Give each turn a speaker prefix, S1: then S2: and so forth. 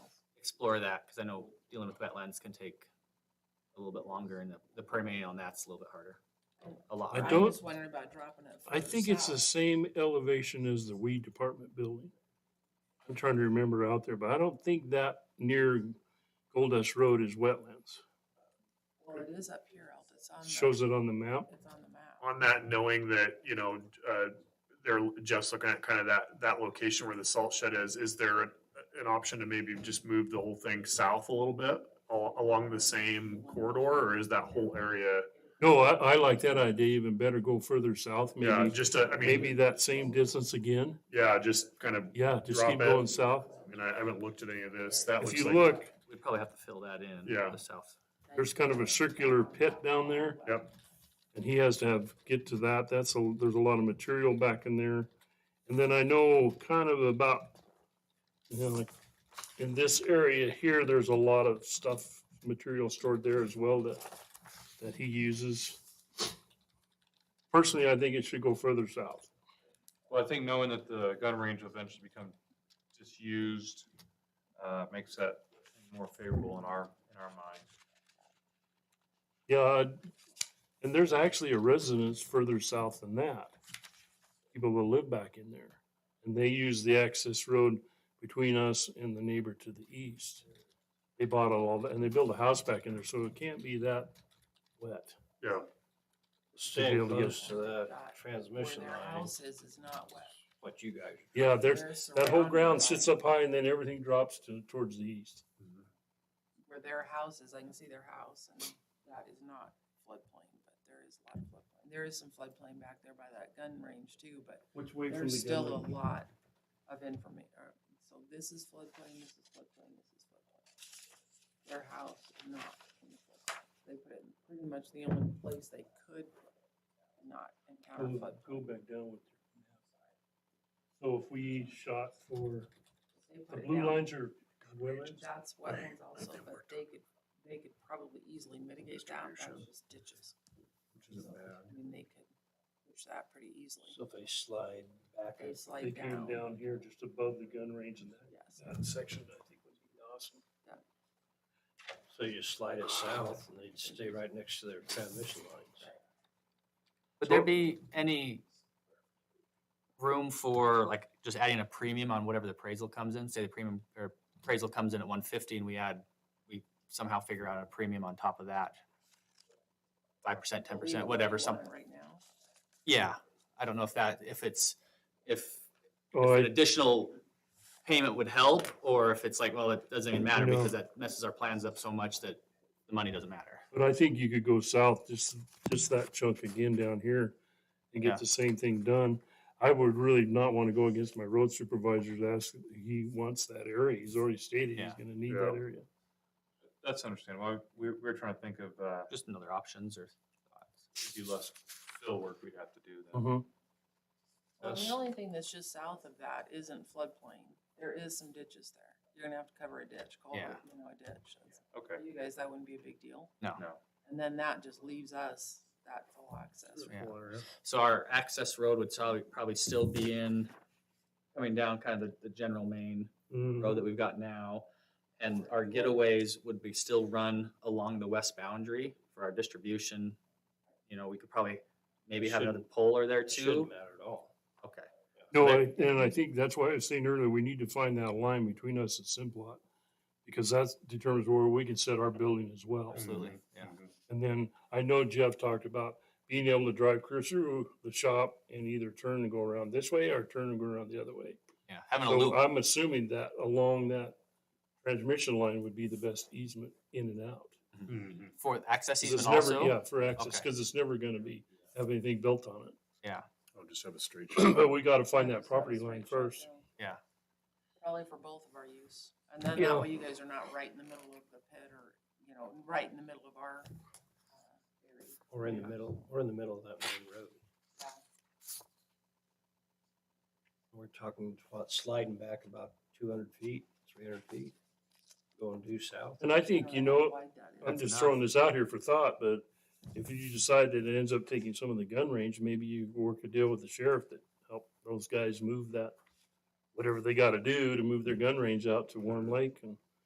S1: explore that, because I know dealing with wetlands can take a little bit longer, and the, the permitting on that's a little bit harder, a lot.
S2: I
S1: harder.
S2: don't-
S3: was wondering about dropping it.
S2: I
S3: further
S2: think it's the
S3: south.
S2: same elevation as the weed department building. I'm trying to remember out there, but I don't think that near Goldust Road is wetlands.
S3: Well, it is up here, Alta. It's on. the-
S2: Shows it on the map.
S3: It's on the map.
S4: on that, knowing that, you know, uh, there, Jeff's looking at kind of that, that location where the salt shed is, is there an an option to maybe just move the whole thing south a little bit al- along the same corridor, or is that whole area?
S2: No, I, I like that idea even better. Go further south,
S4: Yeah,
S2: maybe,
S4: just, a- I
S2: maybe
S4: mean,
S2: that same distance again.
S4: yeah, just kind of,
S2: Yeah, just
S4: Drop
S2: keep
S4: it.
S2: going south.
S4: I mean, I haven't looked at any of this. That
S2: If
S4: looks
S2: you
S4: like.
S2: look,
S1: We'd probably have to fill that in.
S4: Yeah.
S1: The south.
S2: there's kind of a circular pit down there.
S4: Yep.
S2: And he has to have, get to that, that's a, there's a lot of material back in there. And then I know kind of about, you know, like, in this area here, there's a lot of stuff, material stored there as well that, that he uses. Personally, I think it should go further south.
S5: Well, I think knowing that the gun range will eventually become disused, uh, makes that more favorable in our, in our mind.
S2: Yeah, I'd- and there's actually a residence further south than that. People will live back in there. And they use the access road between us and the neighbor to the east. They bought all that, and they built a house back in there, so it can't be that wet.
S4: Yeah,
S6: Staying
S2: able to get-
S6: close to that
S3: Not
S6: transmission
S3: Where their
S6: line,
S3: house is, is not wet.
S6: what you guys.
S2: Yeah, there's,
S3: They're
S2: that whole
S3: surrounded
S2: ground
S3: by-
S2: sits up high and then everything drops to, towards the east.
S3: Where their house is, I can see their house and that is not floodplain, but there is a lot of floodplain. There is some floodplain back there by that gun range too, but
S7: Which way from
S3: there's
S7: the gun
S3: still a
S7: range?
S3: lot of information. So this is floodplain, this is floodplain, this is floodplain. Their house is not in the floodplain. They put it in pretty much the only place they could not encounter
S2: Go
S3: flood.
S2: go back down with. your map. So if we shot for,
S3: They
S2: the
S3: put it
S2: blue
S3: down.
S2: lines are wetlands?
S3: That's
S4: Right,
S3: wetlands
S4: I
S3: also,
S4: think
S3: but
S4: we're
S3: they could, they could probably easily mitigate that,
S4: Distribution.
S3: that's just ditches.
S4: which isn't
S3: So,
S4: bad.
S3: I mean, they could push that pretty easily.
S6: So if they slide back.
S3: They
S6: and-
S2: They
S3: slide
S2: came
S3: down,
S2: down here just above the gun range and that
S3: yes.
S2: That section, I think, would be awesome.
S6: So you slide it south and they'd stay right next to their transmission lines.
S1: Would there be any room for like just adding a premium on whatever the appraisal comes in? Say the premium or appraisal comes in at one fifty and we add, we somehow figure out a premium on top of that. Five percent, ten
S3: Leave it
S1: percent,
S3: where
S1: whatever,
S3: you want
S1: something.
S3: it Right now.
S1: Yeah, I don't know if that, if it's, if
S2: Oh,
S1: an
S2: I,
S1: additional payment would help or if it's like, well, it doesn't even matter
S2: No.
S1: because that messes our plans up so much that the money doesn't matter.
S2: but I think you could go south, just, just that chunk again down here and
S1: Yeah.
S2: get the same thing done. I would really not want to go against my road supervisor to ask, he wants that area. He's already stated he's
S1: Yeah.
S2: gonna need
S4: Yeah.
S2: that area.
S5: That's understandable. We're, we're trying to think of, uh,
S1: Just another options or
S5: do less fill work we'd have to do then.
S2: Mhm.
S3: Well, the
S5: Yes.
S3: only thing that's just south of that isn't floodplain. There is some ditches there. You're gonna have to cover a ditch, culvert, you know, a ditch. That's-
S5: Okay,
S3: For you guys, that wouldn't be a big deal.
S5: no.
S3: And then that just leaves us that full access.
S1: Yeah.
S4: Full area.
S1: So our access road would probably, probably still be in, coming down kind of the, the general main
S2: Mm.
S1: road that we've got now. And our getaways would be still run along the west boundary for our distribution. You know, we could probably maybe have another polar there
S6: It Shouldn't
S1: too.
S6: matter at all.
S1: Okay,
S2: No, I- and I think that's why I was saying earlier, we need to find that line between us and Simplot. Because that determines where we can set our building as well.
S1: absolutely, yeah.
S2: And then I know Jeff talked about being able to drive clear through the shop and either turn and go around this way or turn and go around the other way.
S1: Yeah, having a
S2: So uh,
S1: loop,
S2: I'm assuming that along that transmission line would be the best easement in and out.
S4: Mhm.
S1: for the access
S2: 'Cause it's
S1: easement
S2: never, yeah,
S1: also.
S2: for access,
S1: Okay.
S2: because it's never gonna be, have anything built on it.
S4: I'll just have a straight.
S2: But we gotta find that
S3: Just have a
S2: property
S3: straight
S2: line
S3: shot
S2: first.
S3: down.
S1: Yeah.
S3: Probably for both of our use. And then
S2: Yeah.
S3: that way you guys are not right in the middle of the pit or, you know, right in the middle of our. uh, area.
S6: Or in the middle, or in the middle of that main road.
S3: Yeah.
S6: We're talking about sliding back about two hundred feet, three hundred feet, going due south.
S2: And I think, you
S3: don't how
S2: know,
S3: wide that is.
S2: I'm
S1: That's
S2: just
S1: enough.
S2: throwing this out here for thought, but if you decide that it ends up taking some of the gun range, maybe you work a deal with the sheriff that help those guys move that, whatever they gotta do to move their gun range out to Warm Lake and